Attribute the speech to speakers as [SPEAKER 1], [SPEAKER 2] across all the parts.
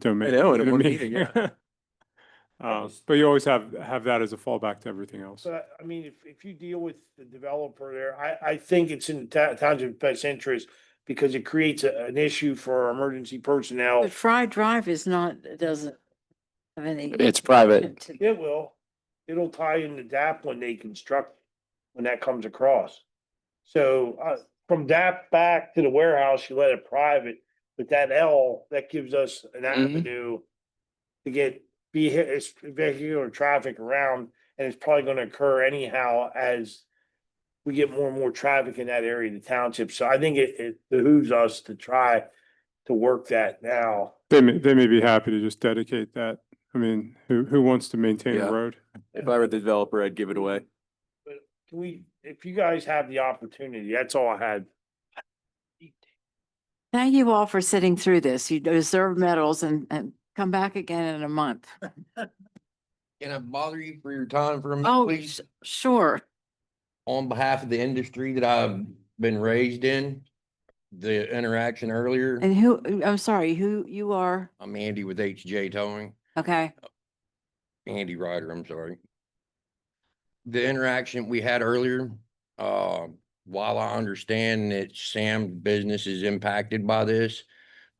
[SPEAKER 1] to me.
[SPEAKER 2] I know, in
[SPEAKER 1] to
[SPEAKER 2] one
[SPEAKER 1] me.
[SPEAKER 2] meeting, yeah.
[SPEAKER 1] Uh, Um, But you always have, have that as a fallback to everything else.
[SPEAKER 3] So, I mean, if, if you deal with the developer there, I, I think it's in the town- township's best interest because it creates a- an issue for our emergency personnel.
[SPEAKER 4] But Fry Drive is not, it doesn't have any.
[SPEAKER 2] It's private.
[SPEAKER 4] to-
[SPEAKER 3] It will, it'll tie into DAP when they construct, when that comes across. So, uh, from DAP back to the warehouse, you let it private, but that L, that gives us an avenue to get vehi- it's vehicular traffic around, and it's probably gonna occur anyhow as we get more and more traffic in that area of the township, so I think it, it behooves us to try to work that now.
[SPEAKER 1] They may, they may be happy to just dedicate that. I mean, who, who wants to maintain
[SPEAKER 2] Yeah.
[SPEAKER 1] a road?
[SPEAKER 2] If I were the developer, I'd give it away.
[SPEAKER 3] Can we, if you guys have the opportunity, that's all I had.
[SPEAKER 4] Thank you all for sitting through this. You deserve medals and, and come back again in a month.
[SPEAKER 5] Can I bother you for your time for a minute,
[SPEAKER 4] Oh,
[SPEAKER 5] please?
[SPEAKER 4] s- sure.
[SPEAKER 5] On behalf of the industry that I've been raised in, the interaction earlier,
[SPEAKER 4] And who, I'm sorry, who you are?
[SPEAKER 5] I'm Andy with HJ Towing,
[SPEAKER 4] Okay,
[SPEAKER 5] Andy Ryder, I'm sorry. The interaction we had earlier, uh, while I understand that Sam's business is impacted by this,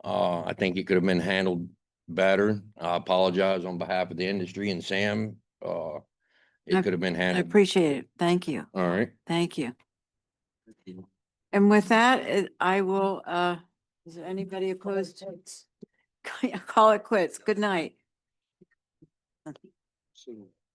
[SPEAKER 5] uh, I think it could have been handled better. I apologize on behalf of the industry and Sam, uh,
[SPEAKER 4] I-
[SPEAKER 5] it could have been
[SPEAKER 4] I
[SPEAKER 5] handled.
[SPEAKER 4] appreciate it. Thank you,
[SPEAKER 5] All right.
[SPEAKER 4] thank you. And with that, it- I will, uh, is there anybody opposed to? Call it quits. Good night.